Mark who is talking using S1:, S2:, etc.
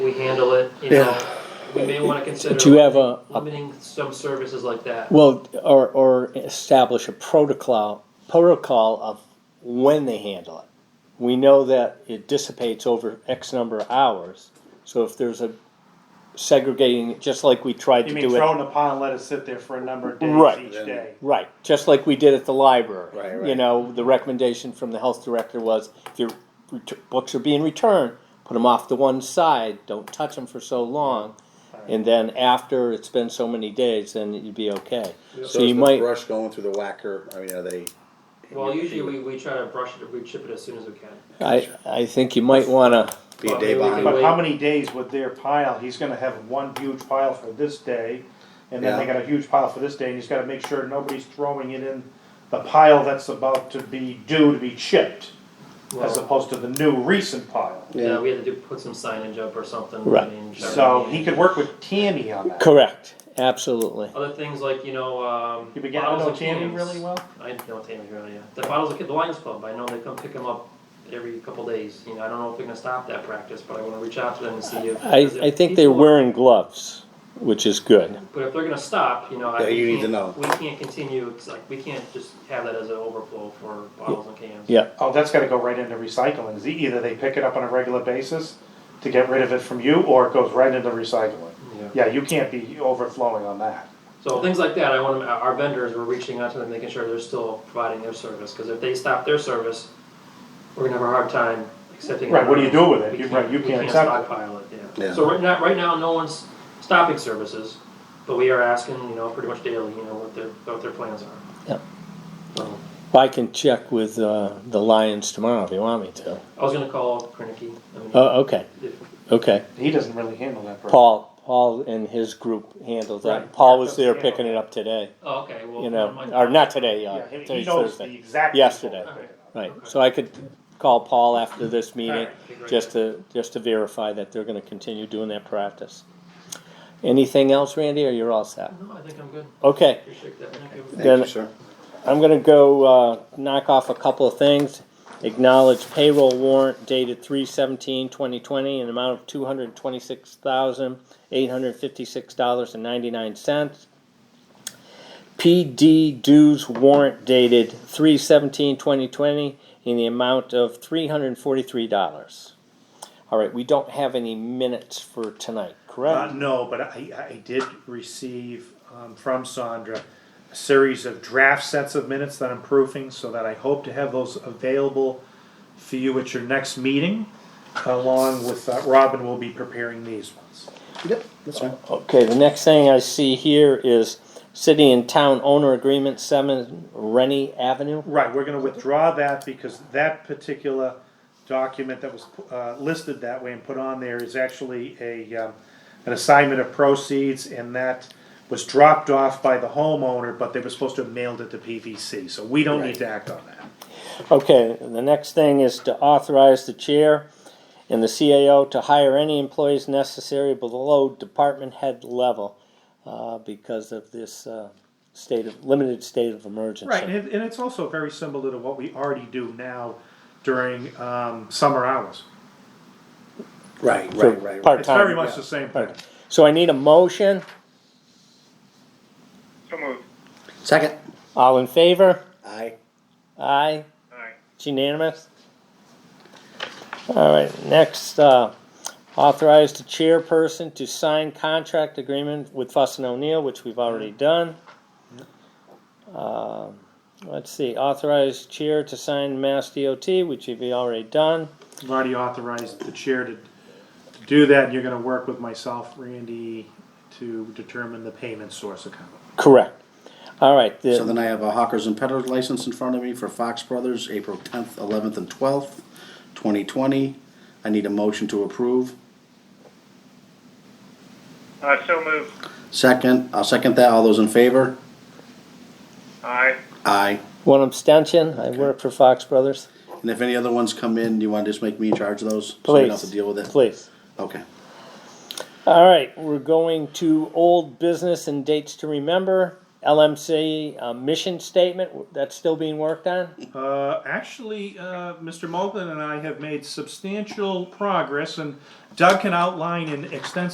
S1: we handle it, you
S2: Yeah.
S1: know, we may wanna consider.
S2: Do you have a, a-
S1: Limiting some services like that.
S2: well, or, or establish a protocol, protocol of when they handle it? We know that it dissipates over X number of hours, so if there's a segregating, just like we tried
S3: You
S2: to
S3: mean
S2: do
S3: throw
S2: it.
S3: in a pile and let it sit there for a number of
S2: Right.
S3: days each day?
S2: Right, just like we did at the library.
S4: Right, right.
S2: You know, the recommendation from the health director was, if your ret- books are being returned, put them off to one side, don't touch them for so long. And then after it's been so many days, then you'd be okay.
S4: So
S2: So
S4: is
S2: you
S4: the
S2: might,
S4: brush going through the whacker? I mean, are they?
S1: Well, usually we, we try to brush it, we chip it as soon as we can.
S2: I, I think you might wanna,
S4: Be
S1: Well,
S4: a day
S1: maybe we
S4: behind.
S1: can
S3: But how many days with their pile? He's gonna have one huge pile for this day, and then they
S4: Yeah.
S3: got a huge pile for this day, and he's gotta make sure nobody's throwing it in the pile that's about to be due to be chipped, as
S1: Well,
S3: opposed to the new recent pile.
S1: yeah, we had to do, put some signage up or something. I
S2: Right.
S1: mean,
S3: So
S1: everything.
S3: he could work with Tammy on that.
S2: correct, absolutely.
S1: Other things like, you know, um.
S3: You begin to
S1: bottles
S3: know
S1: of
S3: Tammy
S1: cans.
S3: really well?
S1: I know Tammy really, yeah. The bottles of, the Lions Club, I know they come pick them up every couple days, you know, I don't know if we're gonna stop that practice, but I wanna reach out to them and see if.
S2: I,
S1: because if
S2: I think they're
S1: people-
S2: wearing gloves, which is good.
S1: But if they're gonna stop, you know, I.
S4: Yeah,
S1: we
S4: you need to
S1: can't-
S4: know.
S1: We can't continue, it's like, we can't just have that as an overflow for bottles and cans.
S2: Yeah,
S3: Oh, that's gotta go right into recycling. Is Either they pick it up on a regular basis to get rid of it from you, or it goes right into recycling. Yeah, you can't be overflowing on that.
S1: So things like that, I want, 'em- our vendors, we're reaching out to them, making sure they're still providing their service, cause if they stop their service, we're gonna have a hard time accepting.
S3: Right, what do you do with it?
S1: We
S3: You- right, you
S1: we
S3: can't accept it.
S1: stockpile it, yeah.
S4: Yeah.
S1: So right now, right now, no one's stopping services, but we are asking, you know, pretty much daily, you know, what their, what their plans are.
S2: Yep.
S1: So,
S2: I can check with, uh, the Lions tomorrow if you want me to.
S1: I was gonna call Krenicki, I
S3: Uh,
S1: mean,
S2: Oh, okay,
S1: if,
S2: okay.
S3: He doesn't really handle that. part.
S2: Paul, Paul and his group handled that.
S1: Right.
S2: Paul was there picking it up today,
S1: oh, okay, well.
S2: you
S1: never
S2: know,
S1: mind.
S2: or not today,
S3: Yeah,
S2: uh,
S3: he- he
S2: today's
S3: knows the
S2: Thursday.
S3: exact.
S2: Yesterday.
S1: All right.
S2: Right, so I could call Paul after this meeting,
S1: Okay, great.
S2: just to, just to verify that they're gonna continue doing that practice. Anything else, Randy, or you're all set?
S1: No, I think I'm good,
S2: Okay,
S1: appreciate that, thank you.
S4: Thank
S2: Then-
S4: you, sir.
S2: I'm gonna go, uh, knock off a couple of things. Acknowledge payroll warrant dated three seventeen twenty twenty in an amount of two hundred twenty-six thousand, eight hundred fifty-six dollars and ninety-nine cents. PD dues warrant dated three seventeen twenty twenty in the amount of three hundred and forty-three dollars. All right, we don't have any minutes for tonight,
S3: Uh,
S2: correct?
S3: no, but I, I did receive um, from Sandra a series of draft sets of minutes that I'm proofing, so that I hope to have those available for you at your next meeting. Along with uh, Robin, will be preparing these ones.
S4: Yep, that's fine.
S2: Okay, the next thing I see here is city and town owner agreement, seven Rennie Avenue.
S3: Right, we're gonna withdraw that because that particular document that was, uh, listed that way and put on there is actually a, um, an assignment of proceeds and that was dropped off by the homeowner, but they were supposed to have mailed it to PVC, so we don't need to act on that.
S2: Okay, the next thing is to authorize the chair and the CAO to hire any employees necessary below department head level uh, because of this uh, state of, limited state of emergency.
S3: Right, and, it- and it's also very similar to what we already do now during, um, summer hours.
S4: Right,
S2: For
S4: right, right. right.
S3: It's
S2: Part-time.
S3: very much
S2: yeah.
S3: the same thing.
S2: Part- So I need a motion.
S5: So moved.
S4: Second.
S2: All in favor?
S4: Aye.
S2: Aye.
S5: Aye.
S2: It's unanimous. All right, next, uh, authorize the chairperson to sign contract agreement with Fuss and O'Neill, which we've already done. Um, Let's see, authorize chair to sign Mass DOT, which we've already done.
S3: I've already authorized the chair to to do that, and you're gonna work with myself, Randy, to determine the payment source account.
S2: Correct. All right, the-
S4: So then I have a hawkers and peddlers license in front of me for Fox Brothers, April tenth, eleventh, and twelfth, twenty twenty. I need a motion to approve.
S5: Uh, so moved.
S4: Second, I'll second that. All those in favor?
S5: Aye.
S4: Aye.
S2: one abstention, I work for Fox Brothers.
S4: And if any other ones come in, do you want to just make me in charge of those? So we don't have to
S2: Please.
S4: deal with it?
S2: Please.
S4: Okay.
S2: All right, we're going to old business and dates to remember. LMC uh, mission statement, that's still being worked on?
S3: Uh, actually, uh, Mr. Moglen and I have made substantial progress, and Doug can outline in extensive